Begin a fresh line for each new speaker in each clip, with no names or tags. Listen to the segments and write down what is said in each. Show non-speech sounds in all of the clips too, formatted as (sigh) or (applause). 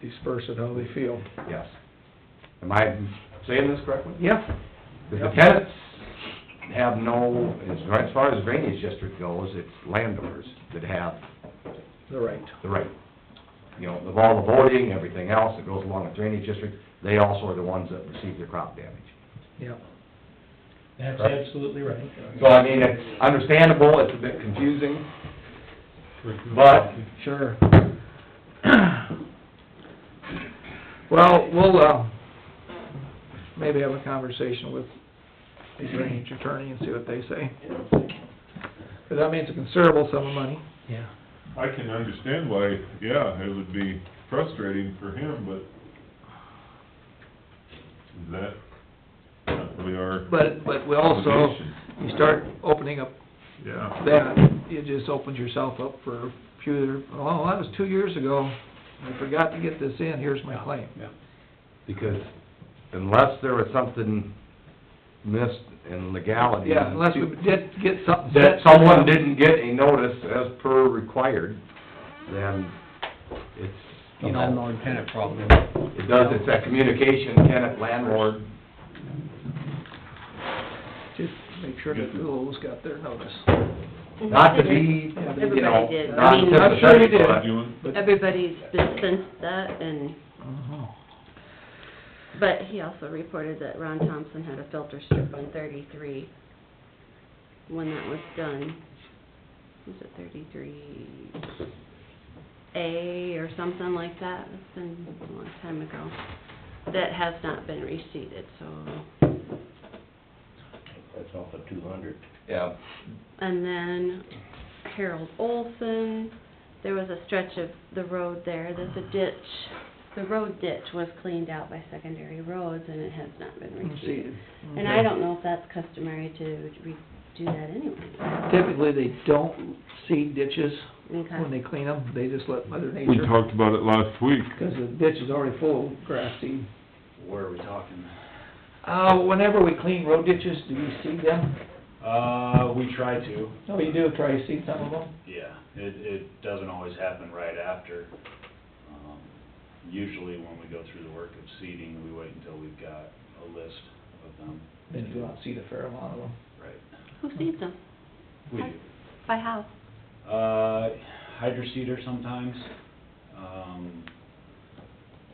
disperse it how they feel.
Yes. Am I saying this correctly?
Yeah.
Because the tenants have no, as far- as far as drainage district goes, it's landowners that have
The right.
the right. You know, of all the voting, everything else that goes along with drainage district, they also are the ones that receive their crop damage.
Yeah.
That's
Correct.
absolutely right.
So I mean, it's understandable, it's a bit confusing, but
Sure. (coughs) Well, we'll, uh, maybe have a conversation with the drainage attorney and see what they say. Cause that means a considerable sum of money.
Yeah.
I can understand why, yeah, it would be frustrating for him, but that, not really our
But, but we also,
obligation.
you start opening up
Yeah.
that, you just opened yourself up for future, oh, that was two years ago. I forgot to get this in, here's my claim.
because unless there was something missed in legality.
Yeah, unless we did get something.
That
set for
someone
them.
didn't get a notice as per required, then it's, you know.
tenant problem.
It does, it's that communication, tenant, landlord,
Just make sure that the Lowell's got their notice.
not to be, you know,
Mm-hmm. Everybody did.
not
I mean-
I'm sure you
sympathetic,
did.
but-
Doing-
but-
Everybody's been sensed that, and,
Uh-huh.
but he also reported that Ron Thompson had a filter strip on thirty-three when that was done. Was it thirty-three A or something like that? It's been a long time ago. That has not been reseeded, so,
That's off of two hundred.
Yeah,
and then Harold Olson, there was a stretch of the road there, there's a ditch. The road ditch was cleaned out by secondary roads, and it has not been
Let's
reseeded.
see.
And I don't know if that's customary to re- do that anyway.
Typically, they don't seed ditches when
Okay.
they clean them, they just let mother
We
nature,
talked about it last week.
because the ditch is already full of grass seed.
Where are we talking?
Uh, whenever we clean road ditches, do you seed them?
Uh, we try to,
No, you do try to seed some of them.
yeah. It, it doesn't always happen right after. Um, Usually when we go through the work of seeding, we wait until we've got a list of them.
Then you go out and seed a fair amount of them.
Right.
Who seeds them?
We do.
By how?
Uh, hydroseeder sometimes. Um,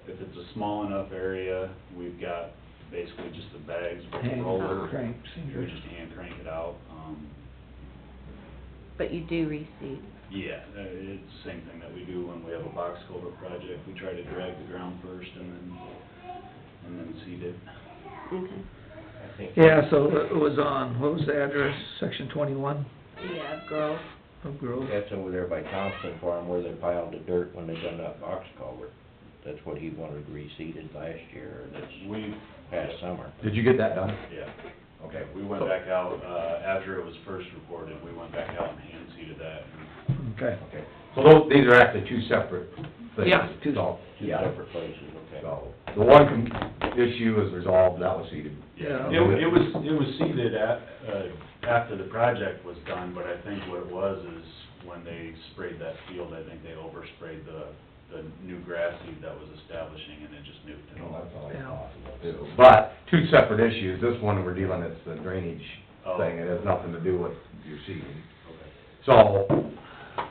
if it's a small enough area, we've got basically just the bags with a
Hand
roller.
crank
We
seeders.
just hand crank it out. Um,
But you do reseed.
Yeah, uh, it's the same thing that we do when we have a box culvert project. We try to drag the ground first and then, and then seed it.
Okay.
Yeah, so it was on, what was the address, section twenty-one
Yeah, growth.
of Grove?
That's over there by Thompson Farm where they piled the dirt when they done that box culvert. That's what he wanted reseeded last year, or this
We,
past summer.
did you get that done?
yeah, okay, we went back out, uh, after it was first reported, we went back out and hand seeded that.
Okay.
Okay, so those, these are actually two separate things.
Yeah, two-
So,
Two
yeah.
separate places, okay.
So, the one com- issue is resolved, that was seated.
Yeah.
It, it was, it was seeded at, uh, after the project was done, but I think what it was is when they sprayed that field, I think they oversprayed the, the new grass seed that was establishing and it just nuked it all.
But, two separate issues, this one we're dealing, it's the drainage
Oh.
thing, it has nothing to do with your seeding.
Okay.
So,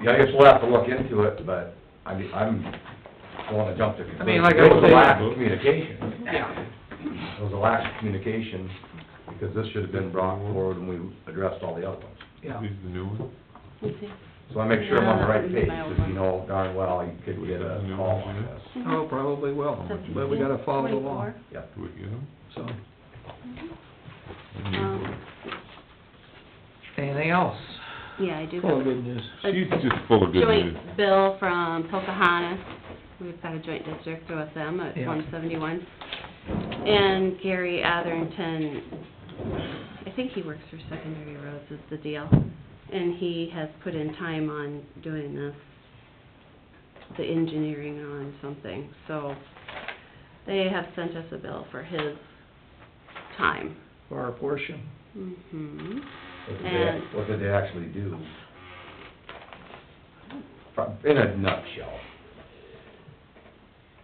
yeah, I guess we'll have to look into it, but I mean, I'm going to jump to conclusions.
I mean, like I
There was
say-
a lack of communication.
Yeah.
There was a lack of communication, because this should have been brought forward when we addressed all the other ones.
Yeah.
Is the new one?
So I make sure I'm on the right
Yeah,
page,
that was my old
because you know darn well you could get a call on this.
Oh, probably will, but we gotta follow the law,
Yep.
Do we get them?
so. Uh,
Um,
Anything else?
yeah, I do
Full of
have
good news.
a
She's just full of good news.
joint bill from Pocahontas. We've got a joint district with them at
Yeah.
one seventy-one. And Gary Atherton, I think he works for Secondary Roads is the deal. And he has put in time on doing this, the engineering on something, so they have sent us a bill for his time.
For our portion.
hmm
What did they, what did they actually do? From- In a nutshell.